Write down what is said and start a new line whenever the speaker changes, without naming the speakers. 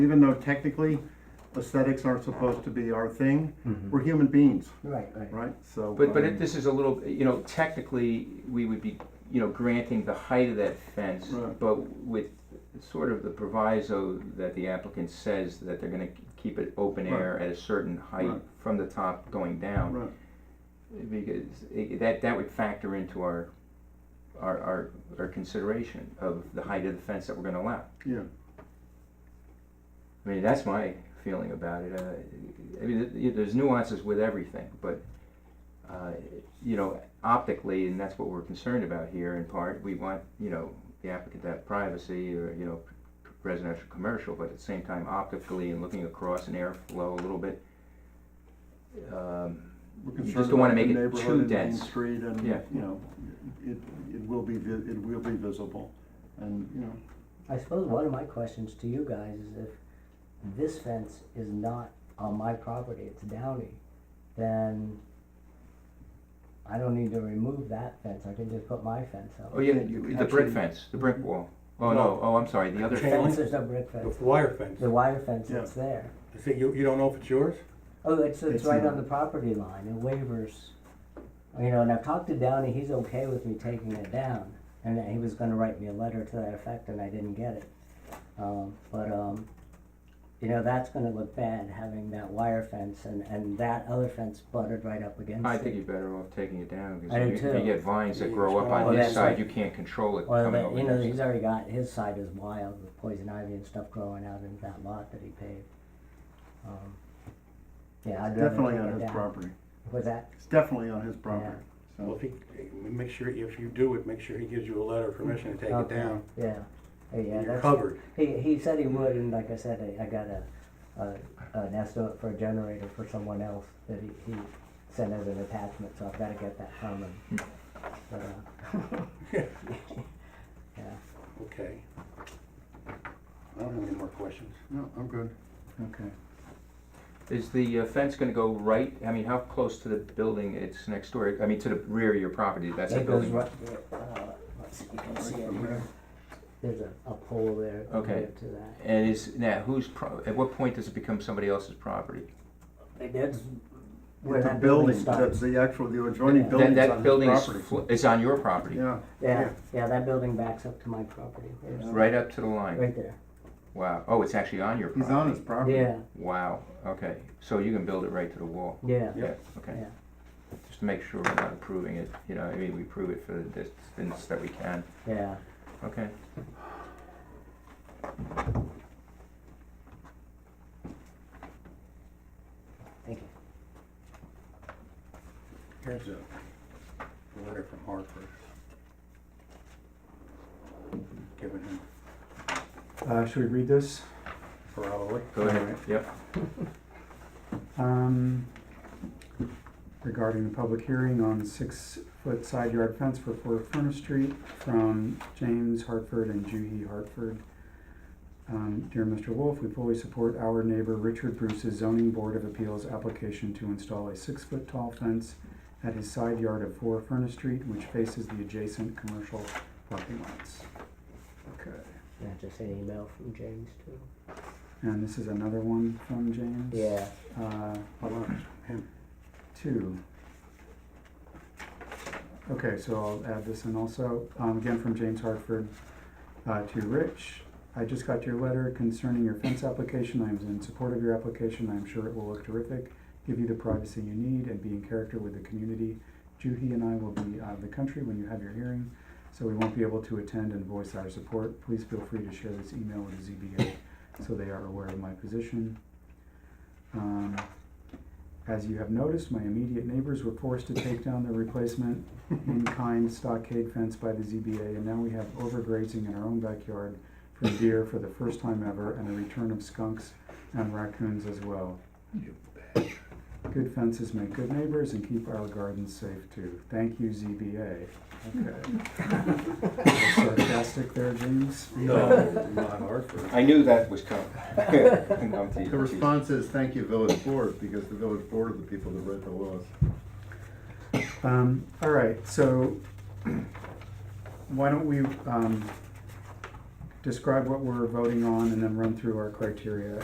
Even though technically aesthetics aren't supposed to be our thing,
Mhm.
we're human beings,
Right, right.
right? So.
But, but
um,
it- this is a little, you know, technically, we would be, you know, granting the height of that fence,
Right.
but with sort of the proviso that the applicant says that they're gonna keep it open air at a certain height
Right.
from the top going down.
uh, Right,
Because it- that, that would factor into our, our, our, our consideration of the height of the fence that we're gonna allow.
yeah,
I mean, that's my feeling about it. Uh, I mean, th- th- there's nuances with everything, but, uh, you know, optically, and that's what we're concerned about here in part, we want, you know, the applicant to have privacy or, you know, residential, commercial, but at the same time optically and looking across an airflow a little bit. um,
we're
You just
concerned
don't wanna
about the
make it too
neighborhood and Main
dense.
Street and,
Yeah.
you know, it, it will be, vi- it will be visible and, you know,
I suppose one of my questions to you guys is if this fence is not on my property, it's downy, then I don't need to remove that fence, I can just put my fence up.
Oh, yeah,
Yeah, you
the brick
actually-
fence, the brick wall. Oh, no, oh, I'm sorry, the other
Chain
fence.
Fence,
link?
there's no brick
The
fence,
wire fence.
the wire fence
Yeah.
that's there.
You see, you, you don't know if it's yours?
Oh, it's, it's
It's
right
not.
on the property line, it wavers. You know, and I've talked to Downey, he's okay with me taking it down, and that he was gonna write me a letter to that effect, and I didn't get it. Um, but, um, you know, that's gonna look bad, having that wire fence and, and that other fence buttered right up against it.
I think you're better off taking it down, because
I do
if you- if you
too.
get vines that
Yeah,
grow up
it's gonna-
on
Oh,
this
that's
side,
right.
you can't control it
Well,
coming
but,
over
you know,
this
he's
side.
already got, his side is wild with poison ivy and stuff growing out in that lot that he paved. Um, Yeah, I'd rather
definitely
take it
on his
down.
property.
What's that?
It's definitely on his property. So,
Well, if he, make sure, if you do it, make sure he gives you a letter of permission to take it
Okay.
down.
Yeah, Hey, yeah,
You're
that's.
covered.
He, he said he would, and like I said, I, I got a, a, an estimate for a generator for someone else that he, he sent as an attachment, so I've gotta get that from him.
Hmm.
But, uh, Yeah,
Okay. I don't have any more questions.
no, I'm good. Okay.
Is the uh, fence gonna go right, I mean, how close to the building it's next door, I mean, to the rear of your property, that's a
it goes
building?
right, uh, let's see, you can see it here, there's a, a pole there.
Okay.
compared To that,
And is, now, whose, pro- at what point does it become somebody else's property?
and that's where
With the
that building
building,
starts.
that's the actual, the adjoining
That-
That,
building's on
that
his
building is,
property.
fl- is on your property,
Yeah,
Yeah, yeah, that building backs up to my property, There's-
right up to the line?
right there,
Wow, oh, it's actually on your
he's
property?
on his property.
yeah,
Wow, okay, so you can build it right to the wall?
yeah,
Yeah.
Okay,
yeah,
just to make sure we're not approving it, you know, I mean, we prove it for the distance that we can,
yeah.
okay?
Thank you.
Here's a letter from Hartford. Given him
Uh, should we read this?
probably.
Go ahead, yep.
Um, regarding the public hearing on six-foot side yard fence for Four Furnace Street from James Hartford and Juhi Hartford. Um, dear Mr. Wolf, we fully support our neighbor Richard Bruce's zoning board of appeals application to install a six-foot tall fence at his side yard of Four Furnace Street, which faces the adjacent commercial parking lots. Okay,
And I just an email from James too.
and this is another one from James.
Yeah,
Uh,
Hold on, him.
Two. Okay, so I'll add this in also. Um, again, from James Hartford uh, to Rich. I just got your letter concerning your fence application. I am in support of your application. I am sure it will look terrific, give you the privacy you need, and be in character with the community. Juhi and I will be out of the country when you have your hearing, so we won't be able to attend and voice our support. Please feel free to share this email with the ZBA so they are aware of my position. Um, as you have noticed, my immediate neighbors were forced to take down their replacement in-kind stockade fence by the ZBA, and now we have overgrazing in our own backyard from deer for the first time ever, and a return of skunks and raccoons as well. Good fences make good neighbors and keep our gardens safe too. Thank you, ZBA. Okay. Sarcastic there, James?
No, not Hartford.
I knew that was coming. No, I'm
The
teasing, teasing.
response is, thank you, village board, because the village board are the people that wrote the laws.
Um, all right, so why don't we, um, describe what we're voting on and then run through our criteria